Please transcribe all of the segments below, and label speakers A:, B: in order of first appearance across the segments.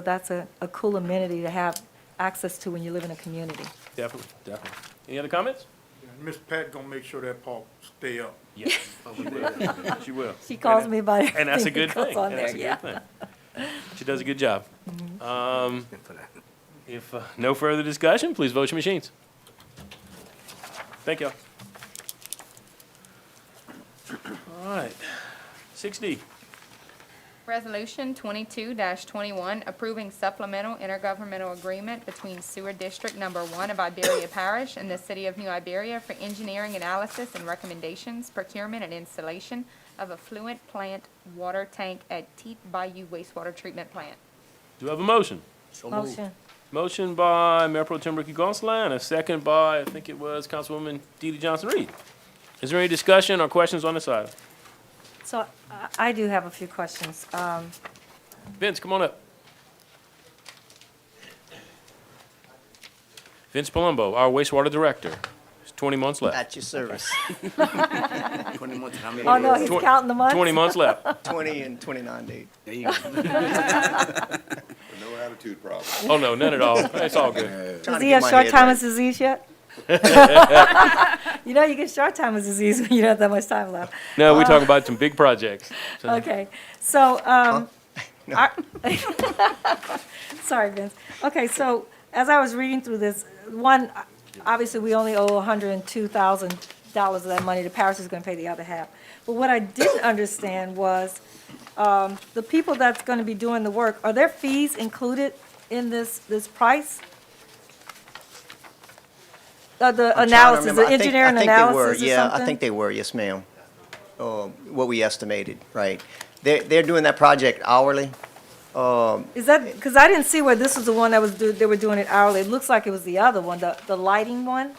A: That's a, a cool amenity to have access to when you live in a community.
B: Definitely, definitely. Any other comments?
C: And Miss Pat gonna make sure that park stay up.
B: Yes. She will. She will.
A: She calls me by
B: And that's a
A: everything
B: good
A: that goes
B: thing.
A: on
B: And that's a
A: there, Mm-hmm.
B: good thing. She does a good job. Um, If uh, no further discussion, please vote your machines. Thank y'all. All right, six D.
D: Resolution twenty-two twenty-one, approving supplemental intergovernmental agreement between Sewer District Number One of Iberia Parish and the City of New Iberia for engineering analysis and recommendations, procurement and installation of affluent plant water tank at Teet Bayou wastewater treatment plant.
B: Do I have a motion?
A: Motion.
B: Motion by Mayor Pro Tem Ricky Gonsalas, and a second by, I think it was Councilwoman Dee Dee Johnson-Reed. Is there any discussion or questions on this item?
A: So I, I do have a few questions. Um,
B: Vince, come on up. Vince Palumbo, our wastewater director. It's 20 months left.
E: At your service. Twenty months, how many?
A: oh, no, he's
B: Twen-
A: counting the months?
B: 20 months left.
E: Twenty and twenty-nine days.
F: No attitude problem.
B: Oh, no, none at all. It's all good.
A: Does he have short-timer disease yet? You know, you get short-timer disease when you don't have that much time left.
B: No, we're talking about some big projects. So-
A: Okay, so, um, are- sorry, Vince. Okay, so as I was reading through this, one, obviously, we only owe hundred and two thousand dollars of that money. The parish is gonna pay the other half. But what I didn't understand was, um, the people that's gonna be doing the work, are their fees included in this, this price? Uh, the analysis, the engineering analysis or
E: Yeah, I
A: something?
E: think they were, yes, ma'am. Um, What we estimated, right. They're, they're doing that project hourly.
A: Is that, because I didn't see where this was the one that was, do- they were doing it hourly. It looks like it was the other one, the, the lighting one.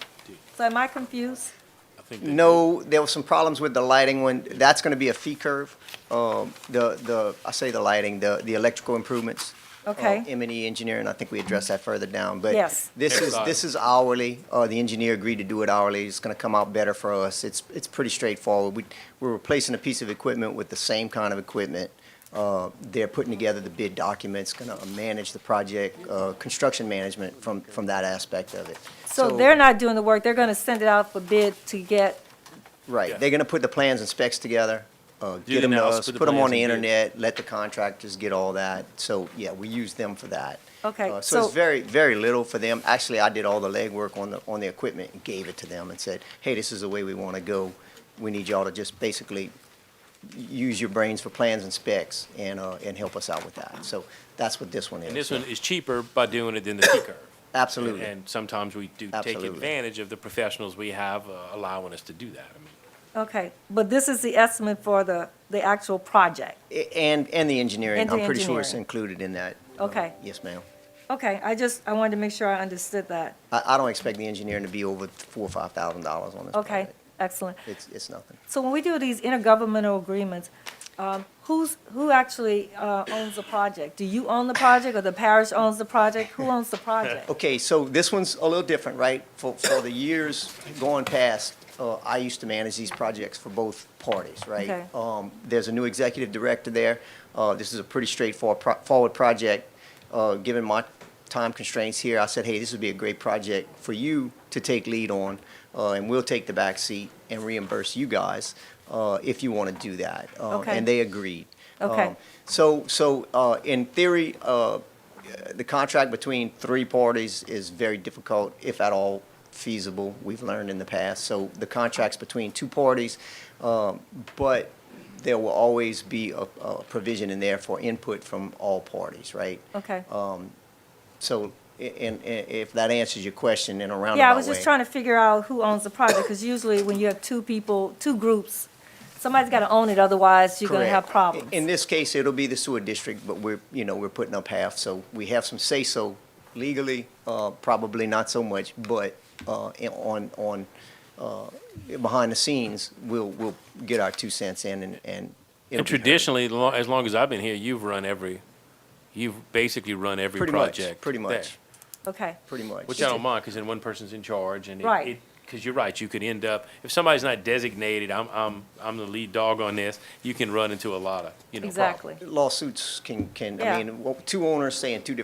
A: So am I confused?
B: I think that-
E: No, there were some problems with the lighting when, that's gonna be a fee curve. Um, The, the, I say the lighting, the, the electrical improvements.
A: Okay.
E: M and E engineering, I think we addressed that further down, but.
A: Yes.
E: This
B: Next
E: is,
B: slide.
E: this is hourly, uh, the engineer agreed to do it hourly, it's gonna come out better for us, it's, it's pretty straightforward. We, we're replacing a piece of equipment with the same kind of equipment. Uh, they're putting together the bid documents, gonna manage the project, uh, construction management from, from that aspect of it.
A: So they're not doing the work. They're going to send it out for bid to get,
B: Yeah.
E: Right, they're gonna put the plans and specs together, uh,
B: the
E: get them to
B: analysis,
E: us,
B: put the
E: put them on
B: plans
E: the
B: and do-
E: internet, let the contractors get all that. So, yeah, we use them for that.
A: Okay,
E: Uh, So
A: so-
E: it's very, very little for them. Actually, I did all the legwork on the, on the equipment and gave it to them and said, hey, this is the way we wanna go. We need y'all to just basically use your brains for plans and specs and, uh, and help us out with that. So that's what this one is.
B: And this one is cheaper by doing it than the T curve.
E: Absolutely.
B: And sometimes we do take
E: Absolutely.
B: advantage of the professionals we have uh, allowing us to do that. I mean,
A: okay. But this is the estimate for the, the actual project.
E: A- And, and the engineering,
A: And the
E: I'm pretty sure it's
A: engineering.
E: included in that. Uh,
A: Okay.
E: Yes, ma'am.
A: Okay, I just, I wanted to make sure I understood that.
E: I, I don't expect the engineering to be over four or five thousand dollars on this
A: Okay,
E: project.
A: excellent.
E: It's, it's nothing.
A: So when we do these intergovernmental agreements, um, who's, who actually uh, owns the project? Do you own the project or the parish owns the project? Who owns the project?
E: Okay, so this one's a little different, right? For, for the years going past, uh, I used to manage these projects for both parties,
A: Okay.
E: right? Um, there's a new executive director there. Uh, this is a pretty straightforward, pro- forward project. Uh, given my time constraints here, I said, hey, this would be a great project for you to take lead on, uh, and we'll take the back seat and reimburse you guys, uh, if you wanna do that. Uh,
A: Okay.
E: And they agreed.
A: Okay.
E: Um, So, so, uh, in theory, uh, the contract between three parties is very difficult, if at all feasible, we've learned in the past. So the contract's between two parties, um, but there will always be a, a provision in there for input from all parties, right?
A: Okay.
E: So, i- and, and if that answers your question in a roundabout way.
A: Yeah, I was just trying to figure out who owns the project, because usually when you have two people, two groups, somebody's got to own it, otherwise you're going to have
E: Correct.
A: problems.
E: In this case, it'll be the sewer district, but we're, you know, we're putting up half, so we have some say-so legally, uh, probably not so much, but, uh, in- on, on, uh, behind the scenes, we'll, we'll get our two cents in and, and. it'll
B: And
E: be heard.
B: traditionally, lo- as long as I've been here, you've run every, you've basically run every
E: Pretty much,
B: project.
E: pretty
B: there,
E: much,
A: Okay,
E: pretty much.
B: Which I don't mind, because then one person's in charge and it-
A: Right.
B: it because you're right, you could end up, if somebody's not designated, I'm, I'm, I'm the lead dog on this, you can run into a lot of, you know, problems.
A: Exactly.
E: Lawsuits can, can,
A: Yeah.
E: I mean, well, two owners saying two different